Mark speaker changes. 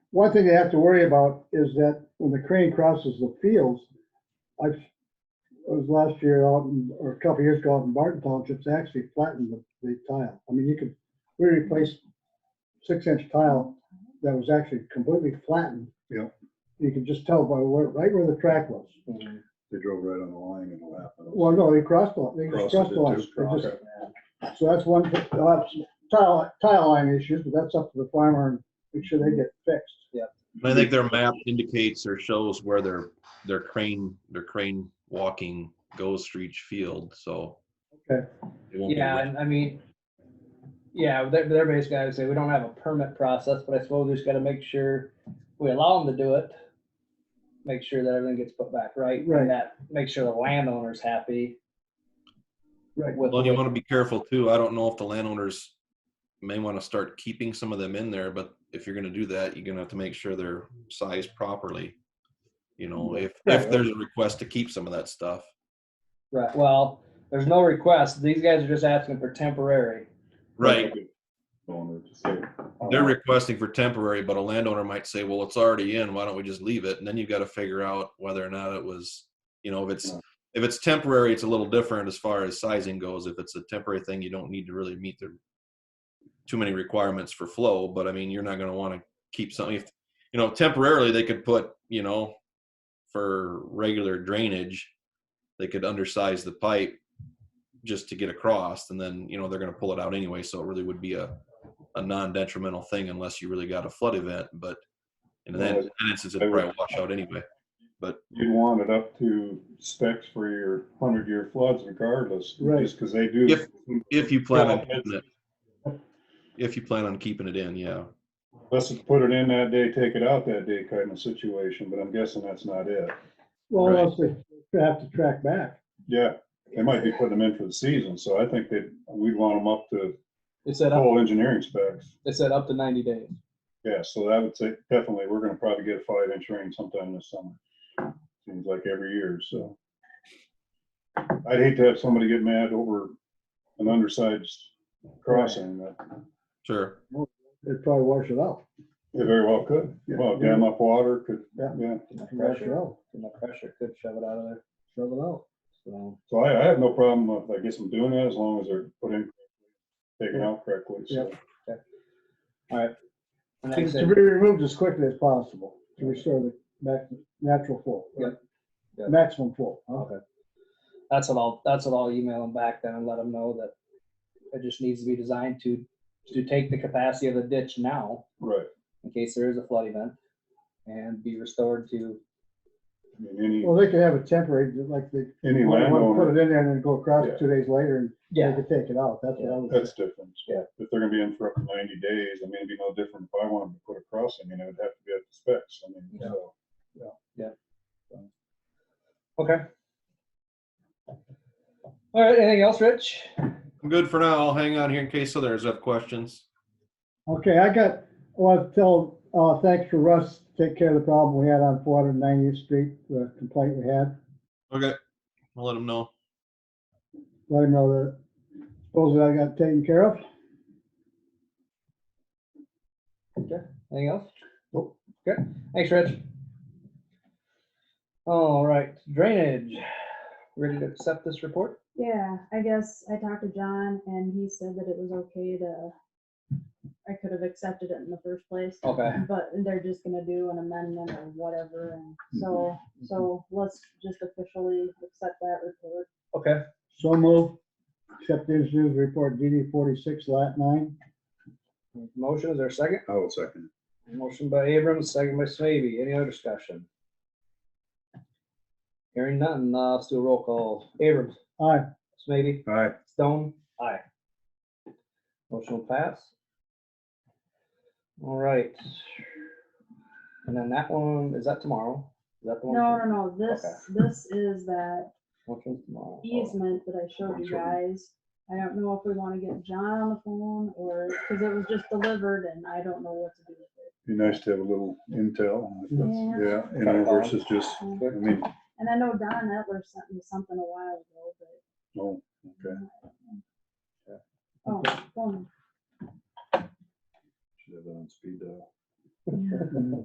Speaker 1: one thing they have to worry about is that when the crane crosses the fields, I've, it was last year out in, or a couple years ago out in Barton Township, they actually flattened the, the tile. I mean, you could, we replaced six inch tile that was actually completely flattened.
Speaker 2: Yeah.
Speaker 1: You could just tell by where, right where the track was.
Speaker 3: Mm-hmm.
Speaker 2: They drove right on the line and what happened.
Speaker 1: Well, no, they crossed the, they just
Speaker 2: Crossed
Speaker 1: crossed
Speaker 2: it
Speaker 1: the line.
Speaker 2: too.
Speaker 1: They just-
Speaker 2: Okay.
Speaker 1: So that's one, they'll have some tile, tile line issues, but that's up to the farmer and make sure they get fixed. Yeah.
Speaker 3: I think their map indicates or shows where their, their crane, their crane walking goes through each field, so.
Speaker 1: Okay.
Speaker 3: it won't be
Speaker 4: Yeah, and I mean, yeah, they're, they're basically, I would say, we don't have a permit process, but I suppose we just gotta make sure we allow them to do it. Make sure that everything gets put back right,
Speaker 1: Right.
Speaker 4: and that, make sure the landowner's happy
Speaker 1: Right.
Speaker 4: with.
Speaker 3: Well, you want to be careful too. I don't know if the landowners may want to start keeping some of them in there, but if you're going to do that, you're going to have to make sure they're sized properly. You know, if, if there's a request to keep some of that stuff.
Speaker 4: Right, well, there's no request, these guys are just asking for temporary.
Speaker 3: Right.
Speaker 2: Going to say,
Speaker 5: Uh,
Speaker 3: They're requesting for temporary, but a landowner might say, well, it's already in. Why don't we just leave it? And then you've got to figure out whether or not it was, you know, if it's, if it's temporary, it's a little different as far as sizing goes. If it's a temporary thing, you don't need to really meet the too many requirements for flow, but I mean, you're not gonna wanna keep something, if, you know, temporarily, they could put, you know, for regular drainage, they could undersize the pipe just to get across, and then, you know, they're gonna pull it out anyway, so it really would be a, a non-detrimental thing unless you really got a flood event, but in that in that instance, it'd probably wash out anyway.
Speaker 5: you'd want it up to specs for your hundred-year floods regardless,
Speaker 1: Right.
Speaker 5: just because they do.
Speaker 3: If- If you plan on
Speaker 5: Yeah, it's-
Speaker 3: keeping it, if you plan on keeping it in, yeah.
Speaker 5: Unless it's put it in that day, take it out that day kind of situation, but I'm guessing that's not it.
Speaker 1: Well,
Speaker 3: Right.
Speaker 1: else they have to track back.
Speaker 5: Yeah, they might be putting them in for the season, so I think that we'd want them up to
Speaker 4: They said
Speaker 5: full engineering specs.
Speaker 4: they said up to ninety days.
Speaker 5: Yeah, so that would say, definitely, we're gonna probably get a five-inch rain sometime this summer. Seems like every year, so. I'd hate to have somebody get mad over an undersized crossing, that
Speaker 3: Sure.
Speaker 1: They'd probably wash it out.
Speaker 5: It very well could.
Speaker 1: Yeah.
Speaker 5: Well, dam up water could,
Speaker 1: Yeah.
Speaker 5: yeah.
Speaker 1: Wash it out,
Speaker 4: And the pressure could shove it out of there,
Speaker 1: shove it out.
Speaker 4: so.
Speaker 5: So I, I have no problem with, I guess I'm doing that as long as they're put in, taken out correctly. So
Speaker 4: and like I
Speaker 1: It's
Speaker 4: said,
Speaker 1: to be removed as quickly as possible to restore the ma- natural flow.
Speaker 4: Yep. Yep.
Speaker 1: Maximum flow. huh?
Speaker 4: Okay. That's what I'll, that's what I'll email them back then and let them know that it just needs to be designed to, to take the capacity of the ditch now
Speaker 5: Right.
Speaker 4: in case there is a flood event and be restored to,
Speaker 5: I mean,
Speaker 1: Well, they could have it temporary, just like they,
Speaker 5: any, any
Speaker 1: want to put
Speaker 5: landowner,
Speaker 1: it in there and then go across
Speaker 5: Yeah.
Speaker 1: it two days later and
Speaker 4: yeah,
Speaker 1: they could take it out. That's what I was,
Speaker 5: that's different.
Speaker 4: Yeah.
Speaker 5: If they're gonna be in for up to ninety days, I mean, it'd be no different if I wanted to put a crossing, you know, it'd have to be up to specs. I mean,
Speaker 4: Yeah.
Speaker 5: so.
Speaker 4: okay. All right, anything else, Rich?
Speaker 3: I'm good for now. I'll hang on here in case others have questions.
Speaker 1: okay, I got, I want to tell, uh, thanks for Russ, to take care of the problem we had on four hundred ninetieth street, the complaint we had.
Speaker 3: Okay. I'll let them know.
Speaker 1: Let him know that, supposedly I got taken care of.
Speaker 4: Anything else?
Speaker 1: Nope.
Speaker 4: Okay, thanks, Rich. All right, drainage. Ready to accept this report?
Speaker 6: Yeah, I guess I talked to John and he said that it was okay to, I could have accepted it in the first place.
Speaker 4: Okay,
Speaker 6: But they're just gonna do an amendment or whatever, and so, so let's just officially accept that report.
Speaker 4: okay,
Speaker 1: So move, accept the engineer's report DD forty-six, lat nine.
Speaker 4: motion, is there a second?
Speaker 2: I will second.
Speaker 4: Motion by Abrams, second by Slavy. Any other discussion? Hearing none, uh, let's do a roll call. Abrams,
Speaker 1: Aye,
Speaker 4: Slavy,
Speaker 2: All right,
Speaker 4: Stone, aye. Motion will pass. All right. And then that one, is that tomorrow? Is that the one?
Speaker 6: No, no, no, this, this is that
Speaker 4: Which one's tomorrow?
Speaker 6: easement that I showed you guys. I don't know if we wanna get John on the phone or, cause it was just delivered and I don't know what to do with it.
Speaker 5: Be nice to have a little intel. if that's-
Speaker 6: Yeah.
Speaker 5: Yeah, you know, versus just, I mean,
Speaker 6: And I know Don Etler sent me something a while ago, but
Speaker 5: oh, okay.
Speaker 6: Oh, phone
Speaker 5: Should have it on speed dial.
Speaker 4: Oh.